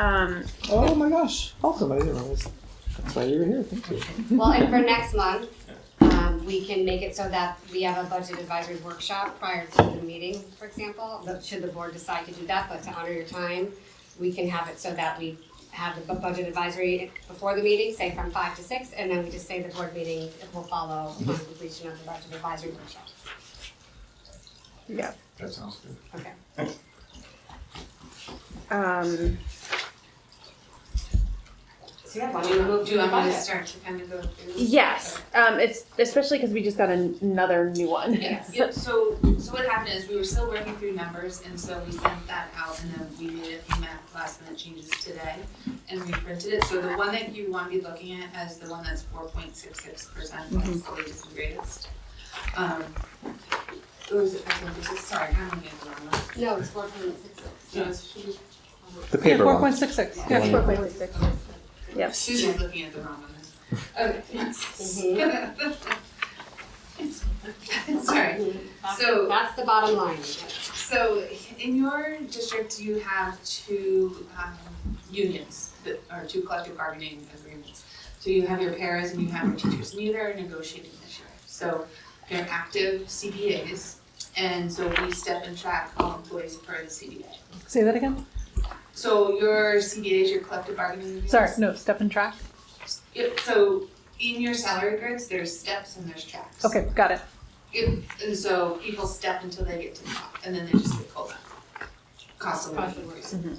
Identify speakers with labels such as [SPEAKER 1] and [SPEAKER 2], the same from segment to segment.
[SPEAKER 1] Um,
[SPEAKER 2] Oh my gosh, awesome, I didn't realize. That's why you were here, thank you.
[SPEAKER 3] Well, and for next month, um, we can make it so that we have a budget advisory workshop prior to the meeting, for example. But Should the board decide to do that, but to honor your time, we can have it so that we have the bu- budget advisory before the meeting, say from five to six, and then we just say the board meeting will follow upon
[SPEAKER 1] Mm-hmm.
[SPEAKER 3] completion of the budget advisory workshop.
[SPEAKER 1] yeah.
[SPEAKER 4] That sounds good.
[SPEAKER 3] Okay.
[SPEAKER 1] Um,
[SPEAKER 3] So yeah, why don't we move
[SPEAKER 5] Do you
[SPEAKER 3] to a
[SPEAKER 5] want me to
[SPEAKER 3] budget?
[SPEAKER 5] start to kind of go through?
[SPEAKER 1] yes. Um, it's especially because we just got an- another new one.
[SPEAKER 5] Yes, yep, so, so what happened is we were still working through numbers and so we sent that out and then we made a few ma- last minute changes today and we printed it, so the one that you want to be looking at is the one that's four point six six percent, that's the latest and greatest. Um, it was, I think this is- sorry, I'm gonna get the wrong one.
[SPEAKER 3] No, it's four point six six.
[SPEAKER 5] No, it's- she was-
[SPEAKER 2] The paper
[SPEAKER 6] Four
[SPEAKER 2] one.
[SPEAKER 6] point six six,
[SPEAKER 1] That's
[SPEAKER 6] yeah.
[SPEAKER 1] four point six. Yep.
[SPEAKER 5] Susan's looking at the wrong one. Okay. Sorry, So-
[SPEAKER 3] That's the bottom line.
[SPEAKER 5] So in your district, you have two um, unions, that- or two collective bargaining agreements. So you have your paras and you have your teachers, and you are negotiating this year. So they're active CBAs, and so we step and track all employees per the CBA.
[SPEAKER 6] Say that again?
[SPEAKER 5] So your CBAs, your collective bargaining agreements.
[SPEAKER 6] Sorry, no, step and track.
[SPEAKER 5] Yep, so in your salary grids, there's steps and there's tracks.
[SPEAKER 6] Okay, got it.
[SPEAKER 5] Yep, and so people step until they get to the top, and then they just get pulled up. Cost of
[SPEAKER 3] Cost
[SPEAKER 5] living.
[SPEAKER 3] of
[SPEAKER 1] Mm-hmm.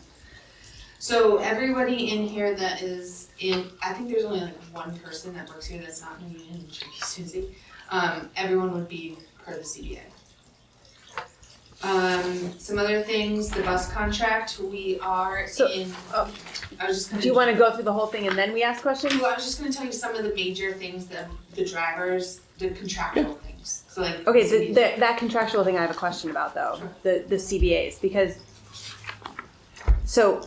[SPEAKER 5] So everybody in here that is in, I think there's only like one person that works here that's not in the union, which would be Susie. Um, everyone would be part of the CBA. Um, some other things, the bus contract, we are
[SPEAKER 1] So-
[SPEAKER 5] in,
[SPEAKER 1] oh.
[SPEAKER 5] I was just gonna.
[SPEAKER 1] Do you want to go through the whole thing and then we ask questions?
[SPEAKER 5] Well, I was just gonna tell you some of the major things, the, the drivers, the contractual things, so like.
[SPEAKER 1] Okay, so the, that contractual thing I have a question about though,
[SPEAKER 5] Sure.
[SPEAKER 1] the, the CBAs, because, so,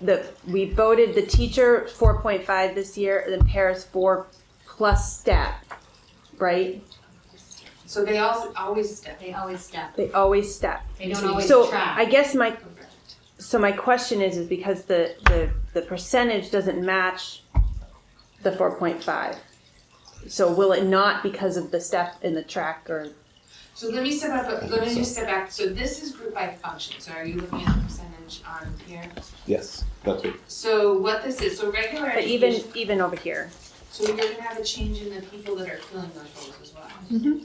[SPEAKER 1] the, we voted the teacher four point five this year, and then Paris four plus stat, right?
[SPEAKER 5] So they all, always step.
[SPEAKER 3] They always step.
[SPEAKER 1] They always step.
[SPEAKER 3] They don't always
[SPEAKER 1] So,
[SPEAKER 3] track.
[SPEAKER 1] I guess my, so my question is, is because the, the, the percentage doesn't match the four point five. So will it not because of the step in the track or,
[SPEAKER 5] So let me step up, let me just step back, so this is group by function, so are you looking at the percentage on here?
[SPEAKER 2] Yes, that's it.
[SPEAKER 5] So what this is, so regular
[SPEAKER 1] but even,
[SPEAKER 5] education-
[SPEAKER 1] even over here?
[SPEAKER 5] so you're gonna have a change in the people that are filling those roles as well.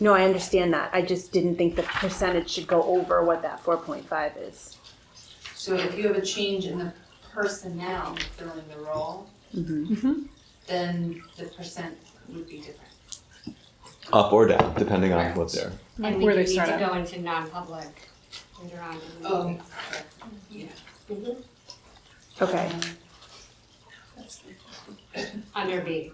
[SPEAKER 1] No, I understand that. I just didn't think the percentage should go over what that four point five is.
[SPEAKER 5] So if you have a change in the personnel filling the role,
[SPEAKER 6] Mhm.
[SPEAKER 5] then the percent would be different.
[SPEAKER 2] Up or down, depending on what's there.
[SPEAKER 3] And we
[SPEAKER 6] Where they
[SPEAKER 3] need
[SPEAKER 6] start
[SPEAKER 3] to
[SPEAKER 6] at.
[SPEAKER 3] go into non-public later on. in the
[SPEAKER 5] Oh,
[SPEAKER 3] meeting.
[SPEAKER 5] yeah.
[SPEAKER 3] Mhm.
[SPEAKER 1] Okay.
[SPEAKER 3] Under B.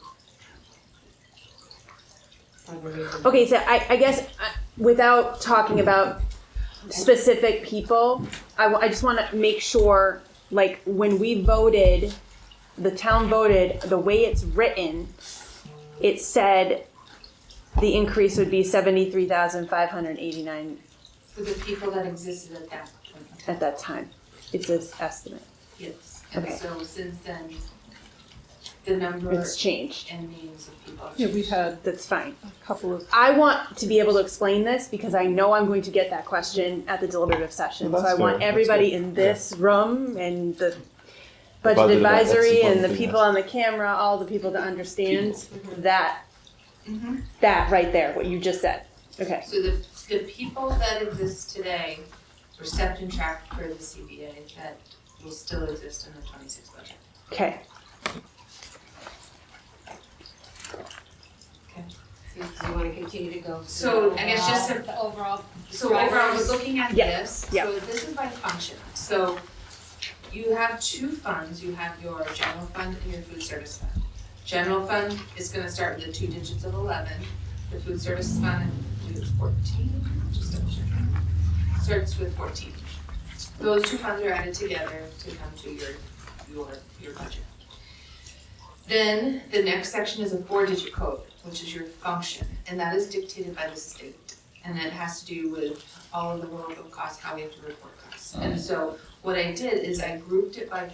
[SPEAKER 3] Under B.
[SPEAKER 1] Okay, so I, I guess uh, without talking about specific people, I, wa- I just want to make sure, like, when we voted, the town voted, the way it's written, it said the increase would be seventy-three thousand five hundred eighty-nine
[SPEAKER 5] For the people that existed at that point in time,
[SPEAKER 1] at that time. It's this estimate.
[SPEAKER 5] yes. And
[SPEAKER 1] Okay.
[SPEAKER 5] so since then, the number
[SPEAKER 1] It's changed.
[SPEAKER 5] and names of people.
[SPEAKER 6] Yeah, we've had
[SPEAKER 1] That's fine.
[SPEAKER 6] a couple of,
[SPEAKER 1] I want to be able to explain this because I know I'm going to get that question at the deliberative session.
[SPEAKER 2] Well,
[SPEAKER 1] so I
[SPEAKER 2] that's
[SPEAKER 1] want
[SPEAKER 2] fair. That's
[SPEAKER 1] everybody
[SPEAKER 2] good.
[SPEAKER 1] in this room and the budget
[SPEAKER 2] budget advi-
[SPEAKER 1] advisory
[SPEAKER 2] that's one
[SPEAKER 1] and the
[SPEAKER 2] thing
[SPEAKER 1] people on the camera, all the people to understand that
[SPEAKER 5] Mhm.
[SPEAKER 1] that right there, what you just said. Okay.
[SPEAKER 5] So the, the people that exist today were stepped and tracked per the CBA that will still exist in the twenty-six budget.
[SPEAKER 1] Okay.
[SPEAKER 3] Do you wanna continue to go?
[SPEAKER 5] So, I guess just
[SPEAKER 3] through the Overall.
[SPEAKER 5] So overall, we're looking at
[SPEAKER 1] Yeah,
[SPEAKER 5] this,
[SPEAKER 1] yeah.
[SPEAKER 5] so this is by function, so you have two funds, you have your general fund and your food service fund. General fund is gonna start with the two digits of eleven, the food service fund, I believe it's fourteen, just double check. Starts with fourteen. Those two funds are added together to come to your, your, your budget. Then, the next section is a four-digit code, which is your function, and that is dictated by the state. And it has to do with all of the world of costs, how we have to report costs. And so what I did is I grouped it by